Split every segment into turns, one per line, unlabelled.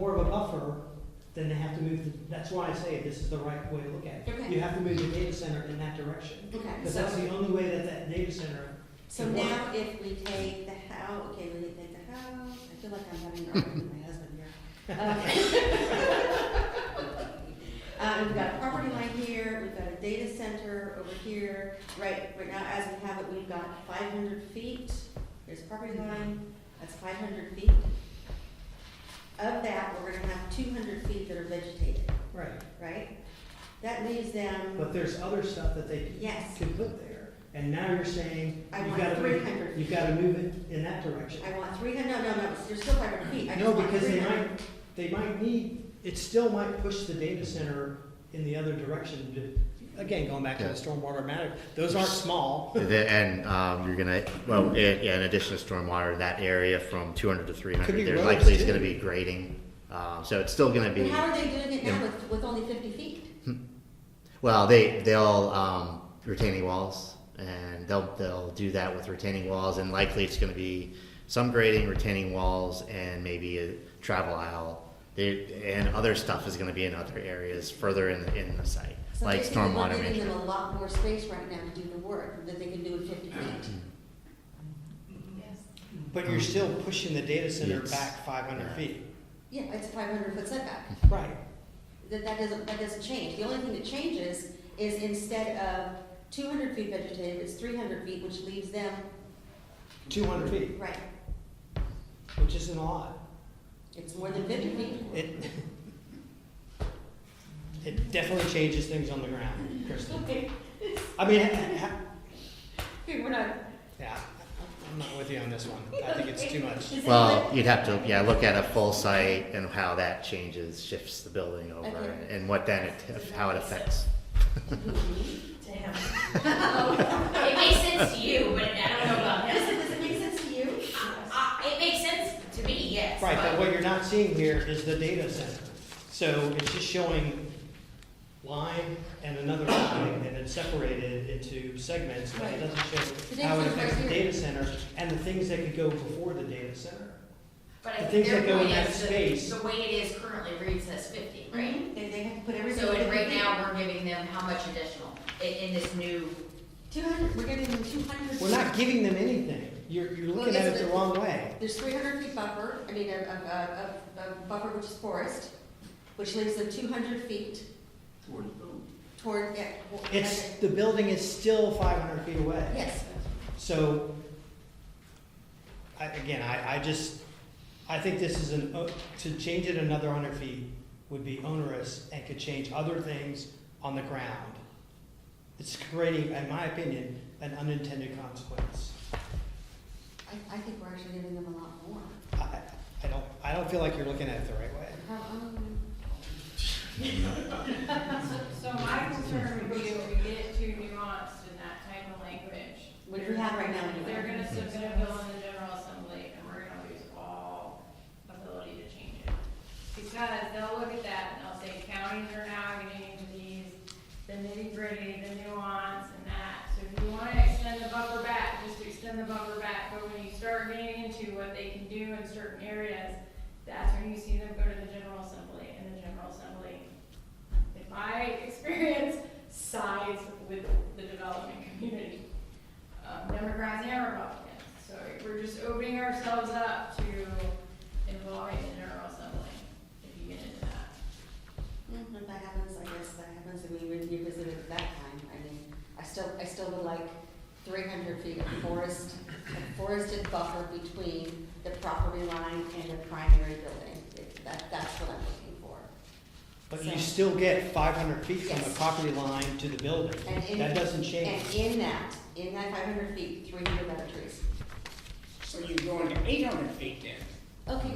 buffer, then they have to move, the- that's why I say this is the right way to look at it.
Okay.
You have to move the data center in that direction,
Okay,
because that's the
so,
only way that that data center,
so now if we take the house, okay, we take the house, I feel like I'm having an argument with my husband here. Uh, Um, we've got a property line here, we've got a data center over here, right, right now as we have it, we've got five hundred feet, there's property line, that's five hundred feet. Of that, we're gonna have two hundred feet that are vegetated,
right?
right? That leaves them,
But there's other stuff that they
yes,
could put there, and now you're saying
I
you've
want
got to,
300.
move- you've got to move it in that direction.
I want three hundred, no, no, no, there's still five hundred feet, I
No,
just want
because
three
they
hundred.
might, they might need, it still might push the data center in the other direction. to- Again, going back to the
Yeah.
stormwater matter, those aren't small.
The- And um, you're gonna, well, it- yeah, in addition to stormwater, that area from 200 to
Could
300,
be
there
roads,
likely is
too.
gonna be grading. Um, So it's still gonna
But
be,
how are they doing it now
Yeah.
with, with only fifty feet?
well, they, they'll um, retaining walls, and they'll, they'll do that with retaining walls, and likely it's gonna be some grading, retaining walls, and maybe a travel aisle. They- And other stuff is gonna be in other areas further in, in the site,
So
like
basically, we're
stormwater
giving
management.
them a lot more space right now to do the work that they can do with fifty feet.
But you're still pushing the data center
Um, Yes.
back five hundred
Yeah.
feet.
Yeah, it's a five hundred foot setback.
Right.
That, that doesn't, that doesn't change. The only thing that changes is instead of two hundred feet vegetative, it's three hundred feet, which leaves them,
Two hundred feet,
right,
which isn't a lot.
it's more than fifty feet.
It, it definitely changes things on the ground, Kristen.
Okay,
I mean, ha- ha-
we're not.
yeah, I'm not with you on this one. I think it's too much.
Does
Well,
anyone-
you'd have to, yeah, look at a full site and how that changes, shifts the building over
Okay.
and what then, it how it affects.
Damn. It makes sense to you, but I don't know about him.
Does it, does it make sense to you?
Uh, It makes sense to me, yes.
Right, but
but-
what you're not seeing here is the data center. So it's just showing line and another line, and it's separated into segments, but it doesn't
The
show how it
data center's
affects the
right here.
data center and the things that could go before the data center.
But I
the
think
things
their
that go in
point
that
is,
space-
the, the way it is currently reads as fifty, right?
They, they have to put
Mm-hmm.
everything.
So and right now, we're giving them how much additional in, in this new,
Two hundred, we're giving them two hundred.
We're not giving them anything. You're, you're
Well,
looking at it
isn't
the
it-
wrong way.
There's three hundred feet buffer, I mean, a, a, a, a buffer which is forest, which leaves them two hundred feet toward, yeah. well,
It's,
okay.
the building is still five hundred feet away.
Yes,
So, I, again, I, I just, I think this is an, o- to change it another hundred feet would be onerous and could change other things on the ground. It's creating, in my opinion, an unintended consequence.
I, I think we're actually giving them a lot more.
I- I, I don't, I don't feel like you're looking at it the right way.
How, um,
So, so my concern would be if we get too nuanced in that type of language.
What do we have right now anyway?
They're gonna submit a bill in the general assembly and we're gonna lose all ability to change it. Because they'll look at that and they'll say counties are now getting into these, the nitty gritty, the nuance and that. So if you wanna extend the buffer back, just extend the buffer back, but when you start getting into what they can do in certain areas, that's when you see them go to the general assembly and the general assembly in my experience, sides with the development community, um, Democrats and Republicans. So we're just opening ourselves up to involving the General Assembly, if you get into that.
mm, If that happens, I guess that happens, and we would revisit it at that time, I mean, I still, I still would like three hundred feet of forest, of forested buffer between the property line and the primary building. It- That, that's what I'm looking for.
But you
So-
still get five hundred feet from the
Yes.
property line to the building.
And in-
That doesn't change.
And in that, in that five hundred feet, three hundred other trees.
So you're going to eight hundred feet then?
Okay.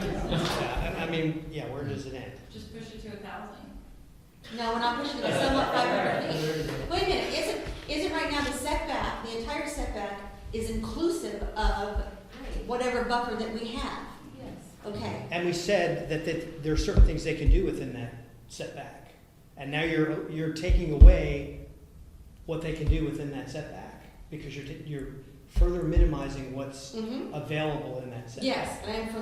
Yeah, I, I mean, yeah, where does it end?
Just push it to a thousand.
No, we're not pushing it, it's not five hundred feet. Wait a minute, isn't, isn't right now the setback, the entire setback is inclusive of whatever buffer that we have? Yes. Okay,
And we said that, that there are certain things they can do within that setback. And now you're, you're taking away what they can do within that setback because you're, ta- you're further minimizing what's
mm-hmm,
available in that setback.
yes, and I'm for